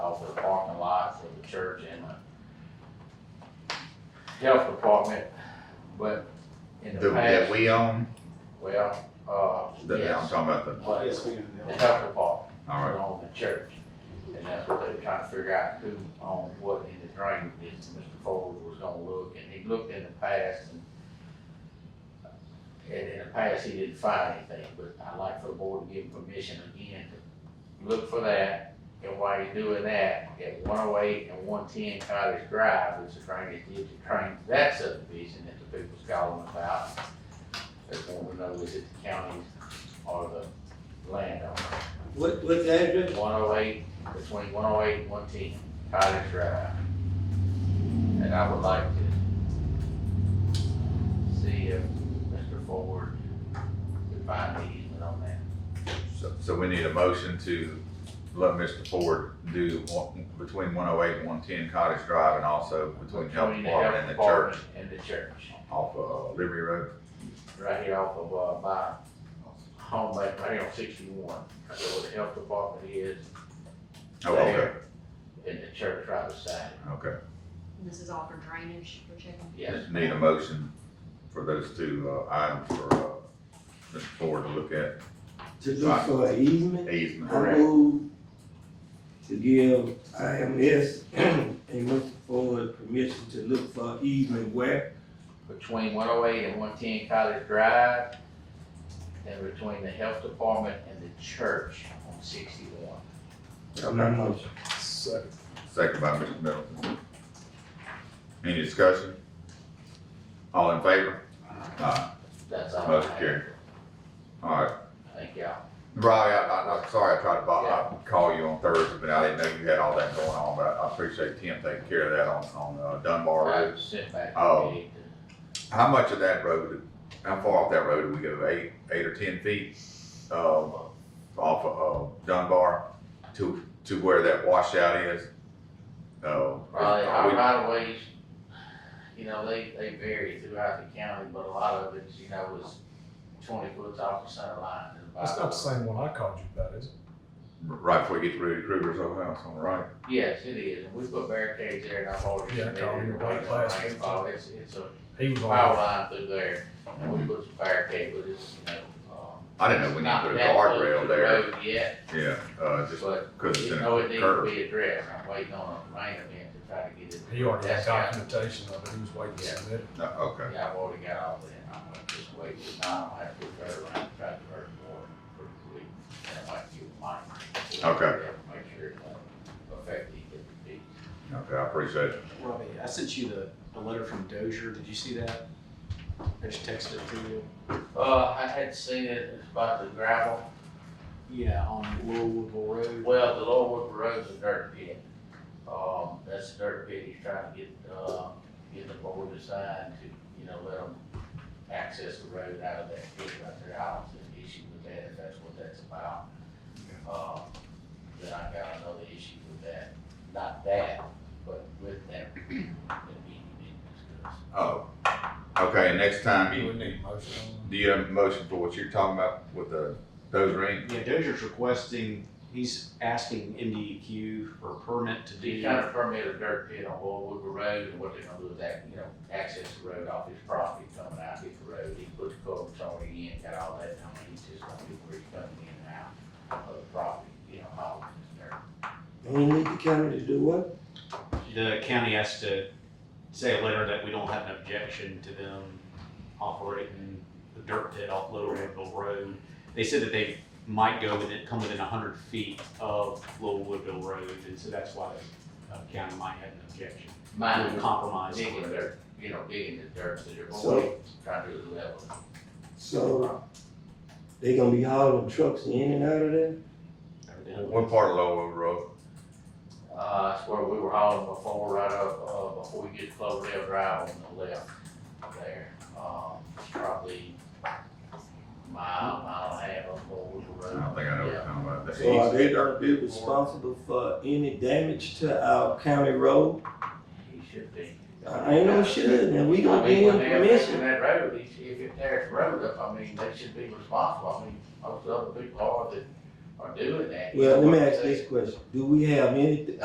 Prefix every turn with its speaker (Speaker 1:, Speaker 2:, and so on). Speaker 1: off the parking lot for the church and the health department, but in the
Speaker 2: The- That
Speaker 1: past,
Speaker 2: we own,
Speaker 1: well, uh,
Speaker 2: that, I'm
Speaker 1: yes,
Speaker 2: talking about the,
Speaker 1: but
Speaker 3: Yes, we
Speaker 1: the
Speaker 3: can.
Speaker 1: health department
Speaker 2: all right,
Speaker 1: owned the church. And that's what they're trying to figure out, who owned what in the drain business, Mr. Ford was gonna look, and he looked in the past and and in the past, he didn't find anything, but I'd like for the board to give him permission again to look for that. And while you're doing that, at one oh eight and one ten Cottage Drive, which is trying to get the train to that subdivision that the people's calling about. That's one we know is it the county or the landowner.
Speaker 3: What, what's the address?
Speaker 1: One oh eight, between one oh eight and one ten, Cottage Drive. And I would like to see if Mr. Ford could find the easement on that.
Speaker 2: so, so we need a motion to let Mr. Ford do one, between one oh eight and one ten Cottage Drive and also between Health
Speaker 1: Between the
Speaker 2: Department and the
Speaker 1: department
Speaker 2: church
Speaker 1: And the church,
Speaker 2: off of uh, Liberty Road. Oh,
Speaker 1: right here off of, uh, by home, like, right here on sixty-one, so where the health department is.
Speaker 2: Oh, okay,
Speaker 1: there, And the church right beside it,
Speaker 2: okay.
Speaker 4: This is all for drainage, we're checking.
Speaker 1: yes.
Speaker 2: Need a motion for those two, uh, items for, uh, Mr. Ford to look at
Speaker 5: To look for an easement,
Speaker 2: easement.
Speaker 5: I move to give IMS and Mr. Ford permission to look for easement where?
Speaker 1: between one oh eight and one ten College Drive, and between the health department and the church on sixty-one.
Speaker 5: I'm not motion.
Speaker 3: Second.
Speaker 2: Second by Mr. Middleton. Any discussion? All in favor? Aye.
Speaker 1: That's all. I
Speaker 2: Motion
Speaker 1: have.
Speaker 2: carried. All right,
Speaker 1: Thank y'all.
Speaker 2: Riley, I, I, I'm sorry I tried to bother, I called you on Thursday, but I didn't know you had all that going on, but I I appreciate Tim taking care of that on, on uh, Dunbar Road.
Speaker 1: I sent back.
Speaker 2: Oh.
Speaker 1: the deed
Speaker 2: How much of that road, how far off that road do we go, eight, eight or ten feet? Uh, off of, uh, Dunbar to, to where that washout is? Uh,
Speaker 1: to- Probably
Speaker 2: are
Speaker 1: our
Speaker 2: we-
Speaker 1: right of ways, you know, they, they vary throughout the county, but a lot of it, you know, is twenty foot off the center line. and
Speaker 6: That's not the
Speaker 1: about-
Speaker 6: same one I called you about, is it?
Speaker 2: right before we get to Rudy Krueger's old house on the right?
Speaker 1: Yes, it is. And we put barricades there and I've already.
Speaker 6: Yeah, I
Speaker 1: submitted
Speaker 6: called you
Speaker 1: everybody
Speaker 6: about last
Speaker 1: on
Speaker 6: week.
Speaker 1: rainfall. It's, it's a
Speaker 6: He was
Speaker 1: power
Speaker 6: on,
Speaker 1: line through there, and we put some barricade, but it's, you know, um.
Speaker 2: I didn't know we need to
Speaker 1: not
Speaker 2: put a
Speaker 1: that close
Speaker 2: guardrail
Speaker 1: to the
Speaker 2: there,
Speaker 1: road Yet,
Speaker 2: yeah, uh, just
Speaker 1: but
Speaker 2: because it's
Speaker 1: you
Speaker 2: in a
Speaker 1: know, it needs to
Speaker 2: curve.
Speaker 1: be addressed, I'm waiting on a rain event to try to get it.
Speaker 6: he already had
Speaker 1: That's got-
Speaker 6: documentation of it, he was waiting to
Speaker 1: Yeah.
Speaker 6: submit it.
Speaker 2: No, Okay,
Speaker 1: Yeah, I've already got all that, I'm gonna just wait, till now I'll have to go around, try to hurt more pretty quick, and I might get mine.
Speaker 2: Okay.
Speaker 1: Make sure it won't affect the, E
Speaker 2: okay, I appreciate it.
Speaker 3: Robbie, I sent you the, the letter from Dozier. Did you see that? I just texted it to you.
Speaker 1: Uh, I had seen it, it's about the gravel,
Speaker 3: Yeah, on Little Woodville Road.
Speaker 1: Well, the Lower Woodford Road's a dirt pit. Um, that's a dirt pit, he's trying to get, uh, get the board assigned to, you know, let them access the road out of that pit right there. I don't see an issue with that, if that's what that's about. Um, then I got another issue with that, not that, but with that, that meeting being discussed.
Speaker 2: Oh, okay, next time
Speaker 6: He
Speaker 2: you,
Speaker 6: would need a motion on
Speaker 2: do you have a motion for what you're talking about with the, those rings?
Speaker 3: Yeah, Dozier's requesting, he's asking MDEQ for a permit to
Speaker 1: He's
Speaker 3: do.
Speaker 1: trying to permit a dirt pit on Old Woodward Road, and what they're gonna do is that, you know, access the road off his property, coming out his road, he put the culverts already in, got all that, done. he's just gonna do where he's coming in and out of the property, you know, all this dirt.
Speaker 5: And we need the county to do what?
Speaker 3: The county has to say a letter that we don't have an objection to them operating the dirt pit off Little Woodville Road. They said that they might go within, come within hundred feet of Little Woodville Road, and so that's why the uh, county might have an objection.
Speaker 1: Mine was
Speaker 3: Compromise.
Speaker 1: digging dirt, you know, digging the dirt, so they're going,
Speaker 5: So-
Speaker 1: trying to do the level.
Speaker 5: So they gonna be hauling trucks in and out of there?
Speaker 2: What part of Lower Wood Road?
Speaker 1: Uh, that's where we were hauling before, right up, uh, before we get to Cloverdale Drive on the left there. Um, probably mile, mile and a half up Old Woodward
Speaker 2: I
Speaker 1: Road.
Speaker 2: don't think I know what you're talking about. The
Speaker 5: So are
Speaker 2: east-
Speaker 5: they gonna be responsible for any damage to our county road?
Speaker 1: He should be.
Speaker 5: I ain't no shit, and we
Speaker 1: I
Speaker 5: gonna
Speaker 1: mean,
Speaker 5: give
Speaker 1: when
Speaker 5: them
Speaker 1: they're fixing that
Speaker 5: permission.
Speaker 1: road, if, if it tears the road up, I mean, they should be responsible, I mean, most of the people are that are doing that.
Speaker 5: Well, let me ask this question, do we have any,